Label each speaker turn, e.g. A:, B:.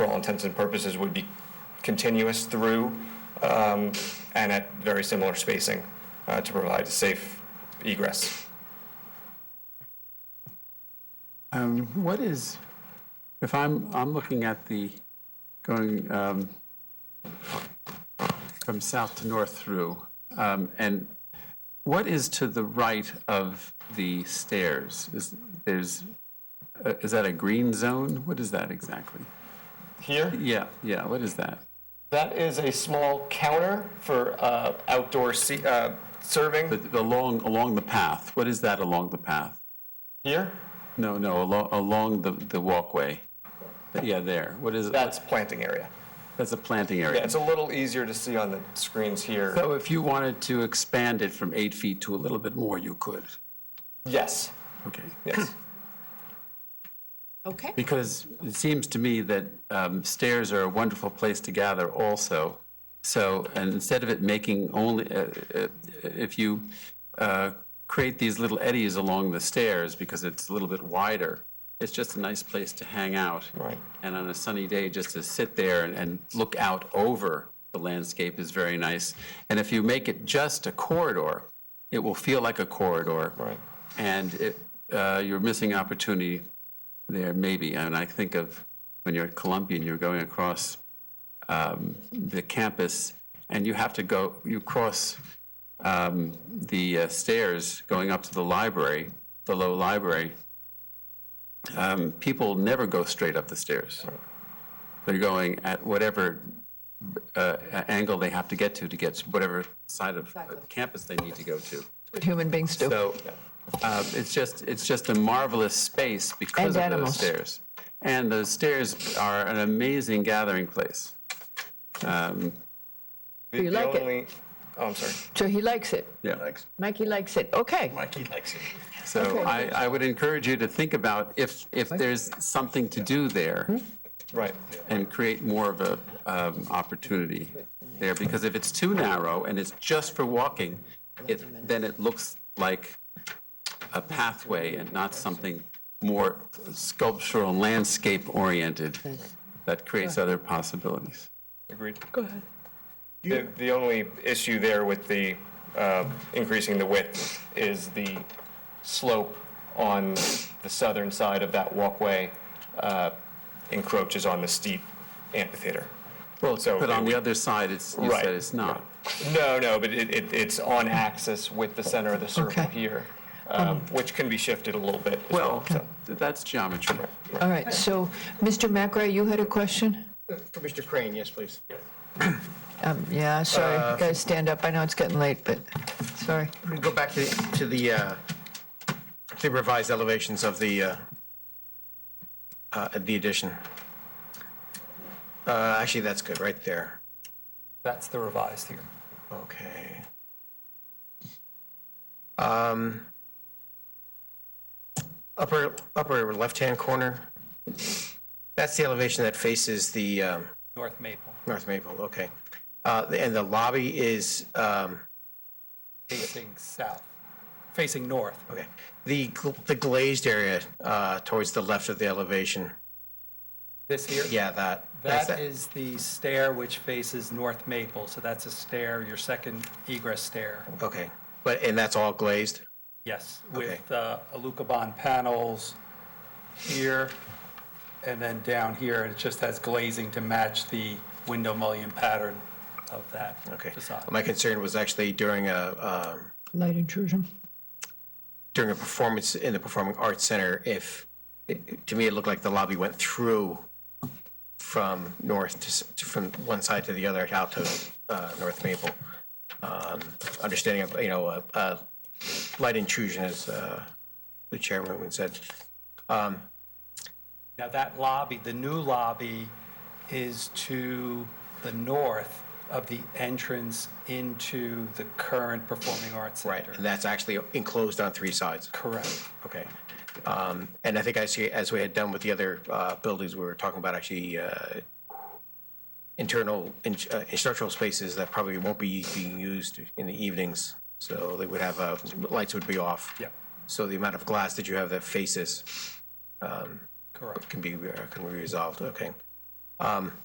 A: intents and purposes would be continuous through um, and at very similar spacing uh, to provide a safe egress.
B: Um, What is, if I'm, I'm looking at the, going um, from south to north through, um, and what is to the right of the stairs? Is, there's, uh, is that a green zone? What is that exactly?
A: Here?
B: Yeah, yeah, what is that?
A: That is a small counter for uh, outdoor se- uh, serving
B: But Along, along the path, what is that along the path?
A: here.
B: No, no, along, along the, the walkway. Yeah, there, what is,
A: That's planting area.
B: that's a planting area.
A: Yeah, it's a little easier to see on the screens here.
B: So if you wanted to expand it from eight feet to a little bit more, you could.
A: yes,
B: Okay.
A: yes.
C: Okay,
B: Because it seems to me that um, stairs are a wonderful place to gather also. So, and instead of it making only, uh, uh, if you uh, create these little eddies along the stairs because it's a little bit wider, it's just a nice place to hang out.
A: Right.
B: And on a sunny day, just to sit there and, and look out over the landscape is very nice. And if you make it just a corridor, it will feel like a corridor.
A: Right.
B: And it, uh, you're missing opportunity there, maybe. And I think of when you're at Columbia and you're going across um, the campus and you have to go, you cross um, the uh, stairs going up to the library, the low library. Um, people never go straight up the stairs. They're going at whatever uh, a- angle they have to get to to get to whatever side of uh, campus they need to go to.
C: what human beings do.
B: So uh, it's just, it's just a marvelous space because
C: And
B: of those
C: animals.
B: stairs. And those stairs are an amazing gathering place. Um,
A: The,
C: You
A: the
C: like it?
A: only, oh, I'm sorry.
C: So he likes it.
B: Yeah.
C: Mikey likes it. Okay.
B: So I, I would encourage you to think about if, if there's something to do
C: Hmm?
B: there
A: Right.
B: and create more of a um, opportunity there. Because if it's too narrow and it's just for walking, it, then it looks like a pathway and not something more sculptural, landscape oriented that creates other possibilities.
A: Agreed.
C: Go ahead.
A: The, the only issue there with the uh, increasing the width is the slope on the southern side of that walkway uh, encroaches on the steep amphitheater.
B: Well,
A: So
B: but on
A: it
B: the other side, it's, you
A: Right,
B: said it's not.
A: No, no, but it, it, it's on axis with the center of the circle
C: Okay.
A: here, um, which can be shifted a little bit as well.
B: Well,
A: so.
B: th- that's geometry.
C: All right, so Mr. McRae, you had a question?
D: For Mr. Crane, yes, please.
C: Um, Yeah, sorry, you guys stand up. I know it's getting late, but, sorry.
D: We go back to, the- to the, uh, the revised elevations of the, uh, uh, the addition. Uh, Actually, that's good, right there.
E: That's the revised here.
D: Okay. Um, Upper, upper left-hand corner, that's the elevation that faces the um,
E: North Maple,
D: North Maple, okay. Uh, And the lobby is, um,
E: facing south, facing north.
D: Okay. The, gl- the glazed area uh, towards the left of the elevation,
E: This here?
D: yeah, that. that's
E: That is the stair which faces North Maple, so that's a stair, your second egress stair.
D: Okay, but, and that's all glazed?
E: Yes, with uh, Alucobond panels here, and then down here, it just has glazing to match the window mullion pattern of that
D: Okay.
E: facade.
D: My concern was actually during a, um,
C: Light intrusion.
D: during a performance in the Performing Arts Center, if, it- to me, it looked like the lobby went through from north to, s- to- from one side to the other out to uh, North Maple. Um, Understanding of, you know, uh, uh, light intrusion, as uh, the chairman said.
E: Now, that lobby, the new lobby, is to the north of the entrance into the current Performing Arts
D: Right,
E: Center.
D: and that's actually enclosed on three sides.
E: Correct.
D: Okay. Um, And I think I see, as we had done with the other uh, buildings, we were talking about actually uh, internal in- uh, instructional spaces that probably won't be being used in the evenings. So they would have, uh, lights would be off.
E: Yeah.
D: So the amount of glass that you have that faces
E: Correct.
D: can be, uh, can be resolved, okay. Um,